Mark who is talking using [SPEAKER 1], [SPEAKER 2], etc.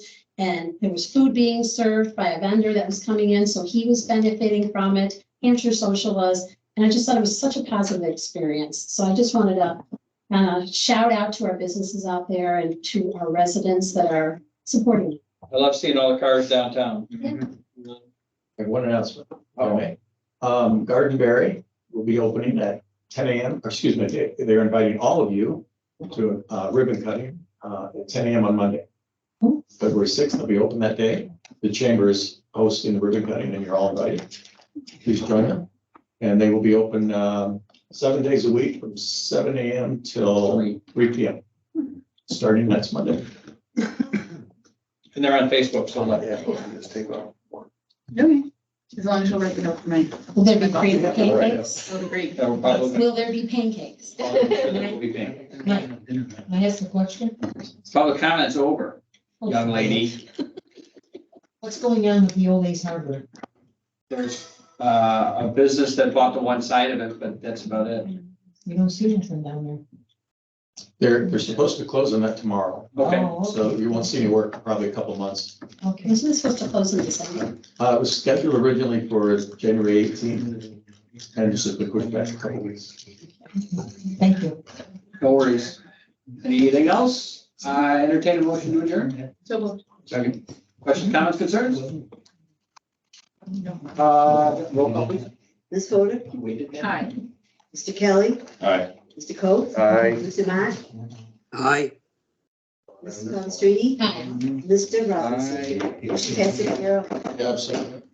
[SPEAKER 1] And there was food being served by a vendor that was coming in, so he was benefiting from it. Hampshire Social was, and I just thought it was such a positive experience. So I just wanted to uh, shout out to our businesses out there and to our residents that are supporting.
[SPEAKER 2] I love seeing all the cars downtown.
[SPEAKER 3] And one announcement, okay. Um, Garden Berry will be opening at ten AM, or excuse me, they- they're inviting all of you to uh, ribbon cutting uh, at ten AM on Monday. February sixth, they'll be open that day. The chamber is hosting the ribbon cutting and you're all invited. Please join them. And they will be open um, seven days a week from seven AM till
[SPEAKER 2] And
[SPEAKER 3] three PM, starting next Monday.
[SPEAKER 2] they're on Facebook, so like,
[SPEAKER 4] Okay, as long as you'll write it up for me.
[SPEAKER 1] Will there be cream pancakes?
[SPEAKER 4] That'll be great.
[SPEAKER 2] that will probably.
[SPEAKER 1] Will there be pancakes?
[SPEAKER 2] It'll be pink.
[SPEAKER 5] Can I ask a question?
[SPEAKER 2] Public comments over, young lady.
[SPEAKER 5] What's going on with the old Ace Hardware?
[SPEAKER 2] There's uh, a business that bought the one side of it, but that's about it.
[SPEAKER 5] We don't see anything down there.
[SPEAKER 3] They're, they're supposed to close on that tomorrow,
[SPEAKER 2] Okay,
[SPEAKER 5] Oh,
[SPEAKER 3] so you won't see me work for probably a couple months.
[SPEAKER 5] Okay.
[SPEAKER 1] Isn't this supposed to close in December?
[SPEAKER 3] Uh, it was scheduled originally for January eighteenth, and just a quick back a couple weeks.
[SPEAKER 5] Thank you.
[SPEAKER 2] no worries. Anything else? Uh, entertain a motion to adjourn.
[SPEAKER 4] So we'll
[SPEAKER 2] Second. Questions, comments, concerns? Uh, roll call please.
[SPEAKER 6] Ms. Fodor,
[SPEAKER 2] We did that.
[SPEAKER 4] Hi.
[SPEAKER 6] Mr. Kelly,
[SPEAKER 3] Aye.
[SPEAKER 6] Mr. Coe,
[SPEAKER 7] Aye.
[SPEAKER 6] Mr. Matt,
[SPEAKER 7] Aye.
[SPEAKER 6] Mrs. Constrady,
[SPEAKER 1] Hi.
[SPEAKER 6] Mr. Robinson.
[SPEAKER 2] Aye.
[SPEAKER 6] Motion passes zero.
[SPEAKER 3] Absolutely.